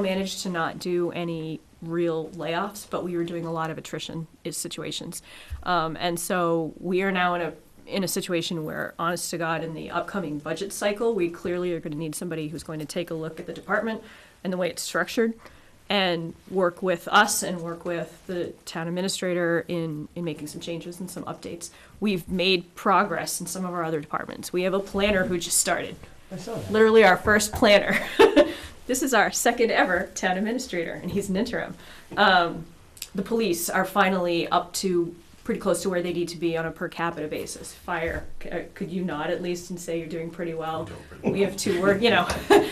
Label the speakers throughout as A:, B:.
A: managed to not do any real layoffs, but we were doing a lot of attrition is situations. Um, and so we are now in a in a situation where, honest to God, in the upcoming budget cycle, we clearly are going to need somebody who's going to take a look at the department and the way it's structured and work with us and work with the town administrator in, in making some changes and some updates. We've made progress in some of our other departments. We have a planner who just started
B: I saw that.
A: literally our first planner. this is our second ever town administrator, and he's an interim. Um, the police are finally up to pretty close to where they need to be on a per capita basis. Fire, c- uh, could you nod at least and say you're doing pretty well? We have two, we're, you know,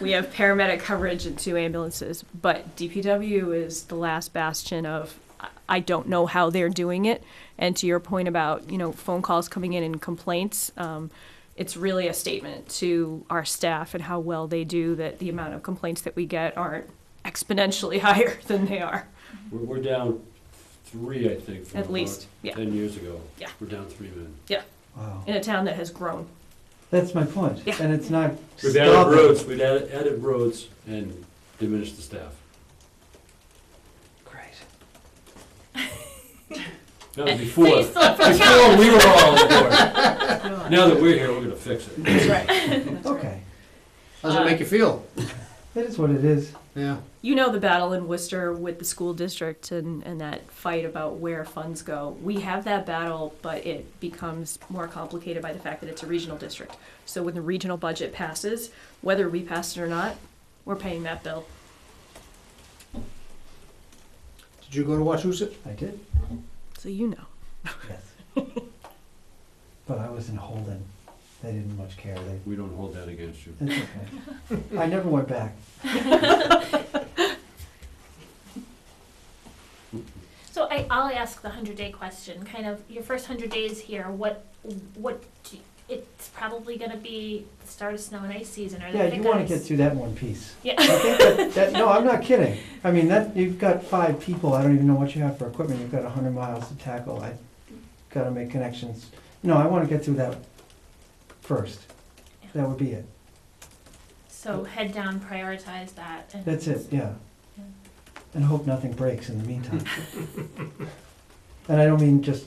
A: we have paramedic coverage and two ambulances, but DPW is the last bastion of. I- I don't know how they're doing it, and to your point about you know phone calls coming in and complaints, um, it's really a statement to our staff and how well they do that the amount of complaints that we get aren't exponentially higher than they are.
B: We're, we're down three, I think, from
A: At
B: about
A: least, yeah.
B: ten years ago.
A: Yeah.
B: We're down three men.
C: Wow.
A: In a town that has grown.
C: That's my point.
A: Yeah.
C: And it's not
B: We've added
C: stopping.
B: roads, we've added, added roads and diminished the staff.
C: Great.
B: That was before,
D: you still have to
B: before we were all on board. Now that we're here, we're gonna fix it.
A: That's right.
C: Okay.
E: How does it make you feel?
C: That is what it is.
E: Yeah.
A: You know the battle in Worcester with the school district and, and that fight about where funds go. We have that battle, but it becomes more complicated by the fact that it's a regional district. So when the regional budget passes, whether we pass it or not, we're paying that bill.
E: Did you go to Wachusett?
C: I did,
A: So you know.
C: yes. But I was in Holden. They didn't much care. They,
B: We don't hold that against you.
C: it's okay. I never went back.
D: So I, I'll ask the hundred day question. Kind of your first hundred days here. What what do you- it's probably going to be the start of snow and ice season, or the
C: Yeah, you
D: thick
C: want to
D: ice.
C: get through that in one piece.
D: Yeah.
C: I think that, that, no, I'm not kidding. I mean, that, you've got five people, I don't even know what you have for equipment, you've got a hundred miles to tackle, I gotta make connections. No, I wanna get through that first. That would be it.
D: So head down, prioritize that. And
C: That's it, yeah. And hope nothing breaks in the meantime. And I don't mean just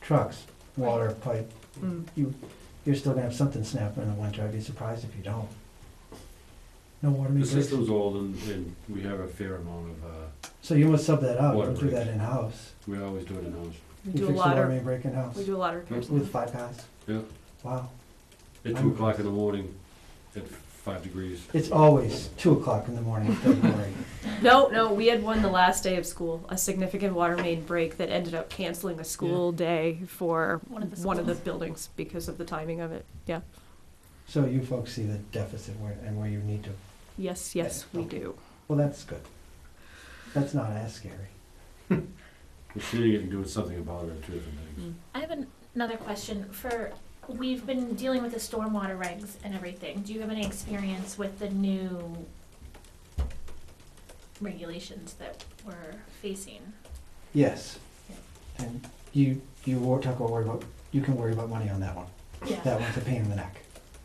C: trucks, water pipe,
A: Mm.
C: you, you're still gonna have something snap in the winter, I'd be surprised if you don't. No water main
B: The
C: breaks,
B: system's old and, and we have a fair amount of, uh,
C: so you must sub that out, you
B: Water
C: don't do
B: breaks.
C: that in-house.
B: we always do it in-house.
A: We
C: You
A: do a
C: fix the
A: lot
C: water
A: of,
C: main break in-house.
A: we do a lot of repairs.
C: With five guys?
B: Yeah.
C: Wow.
B: At two o'clock in the morning, at five degrees.
C: It's always two o'clock in the morning, don't worry.
A: No, no, we had one the last day of school, a significant water main break that ended up canceling a school day for
D: One of the schools.
A: buildings because of the timing of it. Yeah.
C: So you folks see the deficit where, and where you need to,
A: Yes, yes, we do.
C: well, that's good. That's not as scary.
B: We're seeing it and doing something about it, two different things.
D: I have an, another question for. We've been dealing with the stormwater regs and everything. Do you have any experience with the new regulations that we're facing?
C: Yes. And you, you won't talk about worry about, you can worry about money on that one.
D: Yeah.
C: That one's a pain in the neck.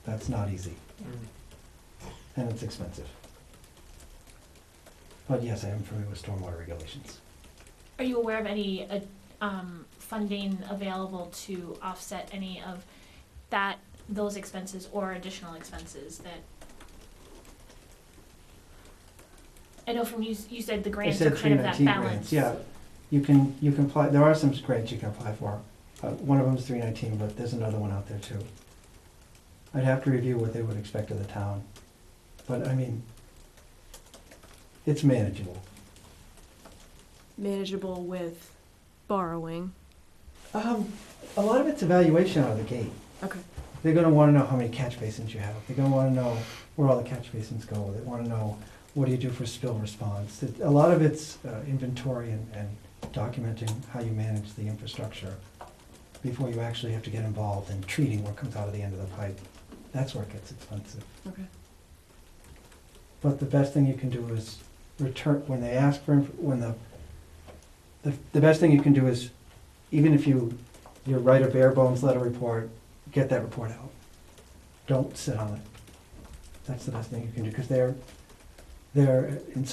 C: That's not easy.
D: Yeah.
C: And it's expensive. But yes, I am familiar with stormwater regulations.
D: Are you aware of any uh, um, funding available to offset any of that, those expenses or additional expenses that? I know from you, you said the
C: I
D: grants are
C: said three
D: kind of that
C: nineteen
D: balance.
C: grants, yeah. You can, you can apply, there are some grants you can apply for. Uh, one of them's three nineteen, but there's another one out there too. I'd have to review what they would expect of the town, but I mean, it's manageable.
A: Manageable with borrowing.
C: Um, a lot of it's evaluation out of the gate.
A: Okay.
C: They're gonna wanna know how many catch basins you have. They're gonna wanna know where all the catch basins go. They wanna know, what do you do for spill response? It- A lot of it's uh, inventory and, and documenting how you manage the infrastructure before you actually have to get involved in treating what comes out of the end of the pipe. That's where it gets expensive.
A: Okay.
C: But the best thing you can do is return, when they ask for, inf- when the, the, the best thing you can do is, even if you, you write a bare bones letter report, get that report out. Don't sit on it. That's the best thing you can do, because they're, They're, in some